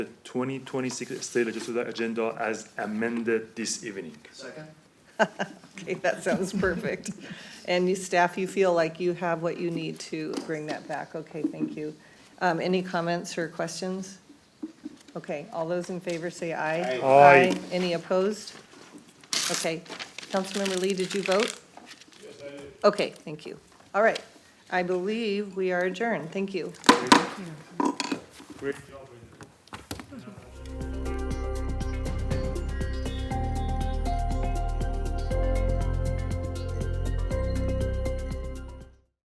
The 2026 State Legislative Agenda as amended this evening. Second? Okay, that sounds perfect. And you, staff, you feel like you have what you need to bring that back? Okay, thank you. Um, any comments or questions? Okay, all those in favor say aye. Aye. Aye. Any opposed? Okay. Councilmember Lee, did you vote? Yes, I did. Okay, thank you. All right. I believe we are adjourned. Thank you. Great job.